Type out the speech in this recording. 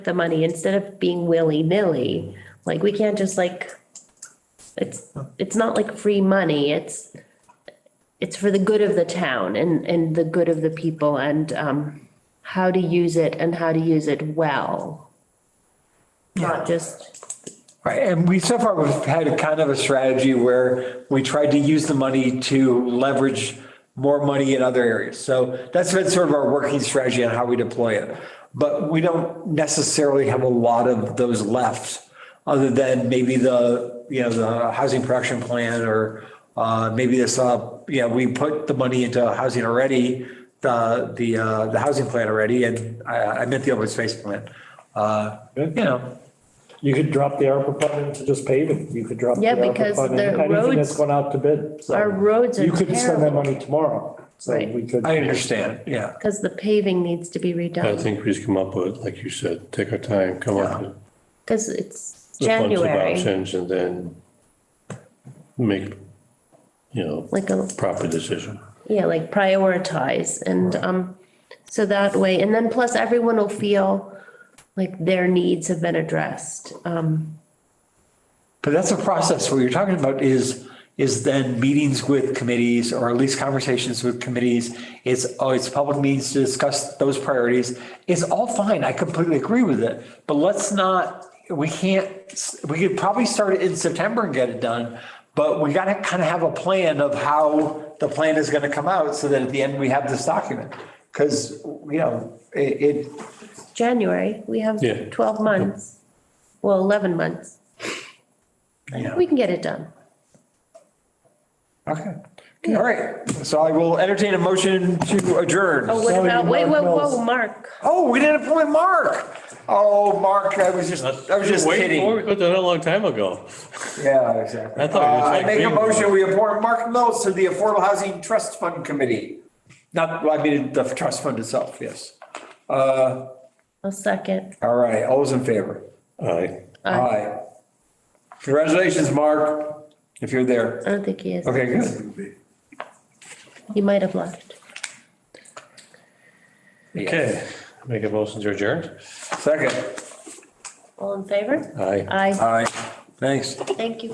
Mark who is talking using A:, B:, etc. A: the money instead of being willy-nilly. Like, we can't just like, it's, it's not like free money, it's, it's for the good of the town and, and the good of the people and, um, how to use it and how to use it well. Not just,
B: Right, and we so far we've had a kind of a strategy where we tried to use the money to leverage more money in other areas. So that's been sort of our working strategy on how we deploy it. But we don't necessarily have a lot of those left, other than maybe the, you know, the housing production plan or uh, maybe this, uh, you know, we put the money into housing already, the, the, uh, the housing plan already, and I, I meant the open space plan. Uh, You know,
C: You could drop the ARPA fund into just paving. You could drop. the
A: Yeah,
C: ARPA
A: because
C: fund in
A: the
C: Anything
A: roads-
C: that's gone out to bid. so
A: Our roads are
C: You could spend that
A: terrible.
C: money tomorrow. So
A: Right.
C: we could.
B: I understand, yeah.
A: because the paving needs to be
D: I
A: redone,
D: think we just come up with, like you said, take our time, come up with
A: because it's
D: a bunch of
A: January,
D: options and then make, you know,
A: like a
D: proper decision.
A: Yeah, like prioritize and um, so that way, and then plus everyone will feel like their needs have been addressed. Um,
B: But that's a process. What you're talking about is, is then meetings with committees or at least conversations with committees. It's, oh, it's public meetings to discuss those priorities. It's all fine. I completely agree with it. But let's not, we can't, we could probably start it in September and get it done. But we gotta kind of have a plan of how the plan is gonna come out so that at the end we have this document. Cause, you know, it, it,
A: January, we have
D: Yeah.
A: twelve months, well, eleven months.
B: you know.
A: We can get it done.
B: Okay. All right. So I will entertain a motion to adjourn.
A: Oh, what
C: Sorry,
A: about, wait, whoa,
C: Mark
A: whoa,
C: Mills.
A: Mark,
B: Oh, we didn't appoint Mark. Oh, Mark, I was just, I was just
D: Wait,
B: kidding.
D: We put that a long time ago.
B: Yeah, exactly.
D: I thought it was
B: Uh, I
D: like
B: make a
D: being-
B: motion, we appoint Mark Mills to the Affordable Housing Trust Fund Committee. Not, well, I mean, the trust fund itself, yes. Uh,
A: a second.
B: all right, all those in favor?
D: Aye.
B: Aye. Congratulations, Mark, if you're there.
A: I don't think he is.
B: Okay, good.
A: He might have left.
D: Okay, make a motion to adjourn?
B: Second.
A: All in favor?
D: Aye.
A: Aye,
B: Aye, thanks.
A: thank you.